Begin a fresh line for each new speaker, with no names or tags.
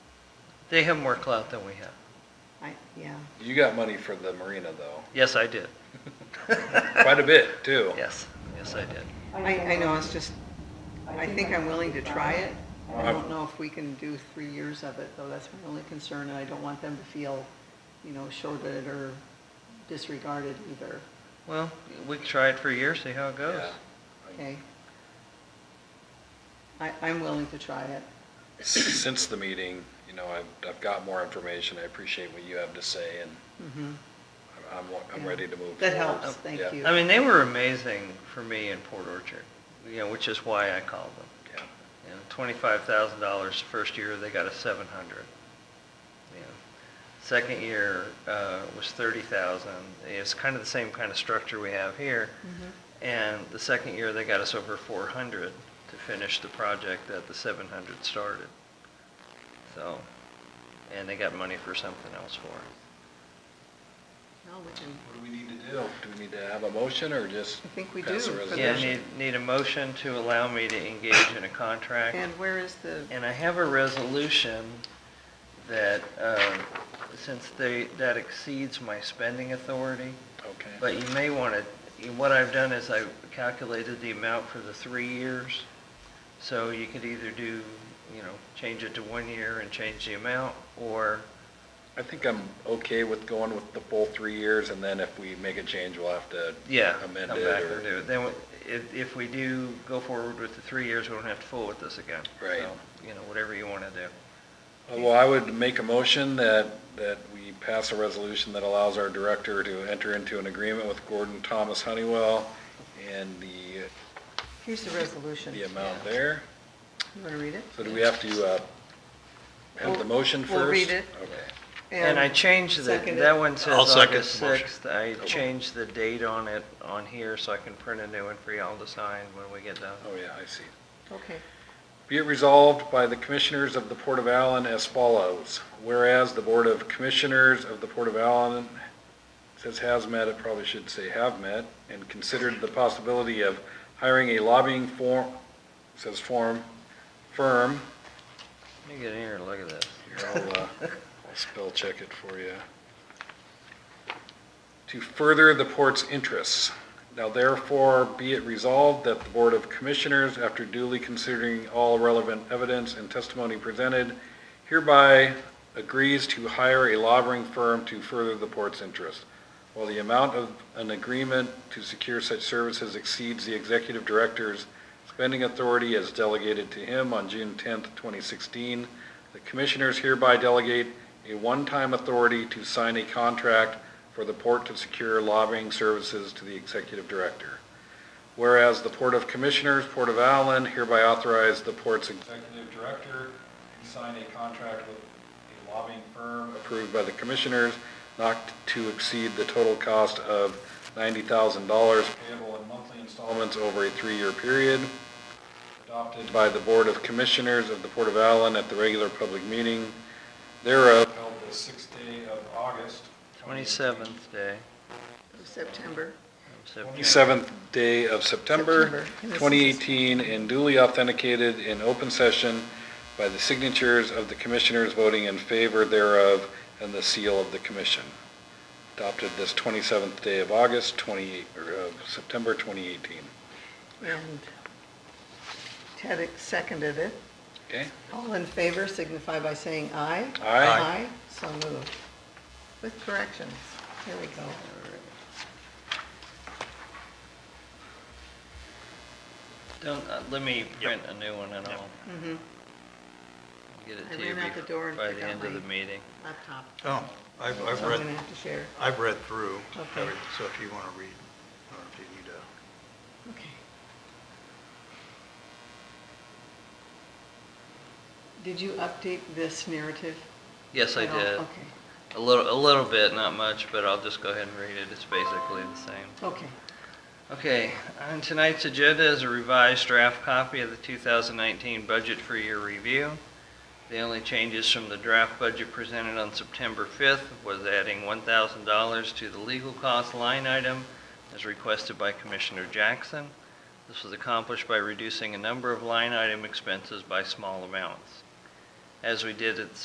They have more clout than we have.
I, yeah.
You got money for the marina though,
Yes, I did.
quite a bit too.
Yes, yes, I did.
I, I know, it's just, I think I'm willing to try it. I
I've-
don't know if we can do three years of it, though, that's my only concern, and I don't want them to feel, you know, shorted or disregarded either,
Well, we can try it for a year, see how it goes.
Yeah.
okay? I, I'm willing to try it.
Since the meeting, you know, I've, I've got more information. I appreciate what you have to say and
Mhm.
I'm- I'm, I'm ready to move.
That
forward.
helps, thank
Yeah,
you.
I mean, they were amazing for me in Port Orchard, you know, which is why I called them.
yeah.
You know, twenty-five thousand dollars first year, they got a seven hundred. You know, Second year, uh, was thirty thousand. It's kind of the same kind of structure we have here.
Mhm.
And the second year, they got us over four hundred to finish the project that the seven hundred started. So, and they got money for something else for it.
No, we can,
What do we need to do? Do we need to have a motion or just?
I think we
pass
do
a
for
Yeah,
this.
resolution?
need, need a motion to allow me to engage in a contract.
and where is the,
And I have a resolution that, uh, since they, that exceeds my spending authority,
Okay.
but you may want to, what I've done is I calculated the amount for the three years. So you could either do, you know, change it to one year and change the amount, or,
I think I'm okay with going with the full three years and then if we make a change, we'll have to.
yeah, come
Amend
back
it or-
and do it. Then, if, if we do go forward with the three years, we don't have to fool with this again.
Right.
So, You know, whatever you want to do.
Uh, Well, I would make a motion that, that we pass a resolution that allows our director to enter into an agreement with Gordon Thomas Honeywell and the,
here's the resolution.
um,
the amount there.
You wanna read it?
So do we have to, uh, have
We'll-
the motion 1st
we'll read it.
Okay.
And I changed the,
second it.
that one says
I'll second
August
the motion.
6th. I changed the date on it on here so I can print a new one for y'all to sign when we get done.
Oh, yeah, I see.
Okay.
Be it resolved by the Commissioners of the Port of Allen as follows. Whereas the Board of Commissioners of the Port of Allen says has met, it probably should say have met, and considered the possibility of hiring a lobbying form, says form, firm.
Let me get in here and look at this.
Here, I'll, uh, I'll spell check it for you. To further the port's interests. Now therefore, be it resolved that the Board of Commissioners, after duly considering all relevant evidence and testimony presented, hereby agrees to hire a lobbying firm to further the port's interest. While the amount of an agreement to secure such services exceeds the executive director's spending authority as delegated to him on June 10th, 2016, the commissioners hereby delegate a one-time authority to sign a contract for the port to secure lobbying services to the executive director. Whereas the Port of Commissioners, Port of Allen hereby authorize the port's executive director to sign a contract with a lobbying firm approved by the commissioners not to exceed the total cost of $90,000 payable in monthly installments over a three-year period adopted by the Board of Commissioners of the Port of Allen at the regular public meeting thereof held the sixth day of August.
27th day
September.
of September.
27th day of September
September.
2018 and duly authenticated in open session by the signatures of the commissioners voting in favor thereof and the seal of the commission. Adopted this 27th day of August 28, or of September 2018.
And Ted seconded it.
Okay?
All in favor signify by saying aye.
Aye.
Aye, so moved. With corrections. Here we go.
Don't, uh, let me print a new one and I'll
Mhm.
get it
I
to you
ran out the door
bef-
and
by the
forgot
end of
my-
the meeting.
Laptop.
Oh, I've,
So I'm
I've read,
going to have to share.
I've read through
Okay.
everything, so if you want to read, or if you need to.
Okay. Did you update this narrative?
Yes, I
at all?
did.
Okay,
A little, a little bit, not much, but I'll just go ahead and read it. It's basically the same.
okay.
Okay, on tonight's agenda is a revised draft copy of the 2019 budget for your review. The only changes from the draft budget presented on September 5th was adding $1,000 to the legal cost line item as requested by Commissioner Jackson. This was accomplished by reducing a number of line item expenses by small amounts. As we did at the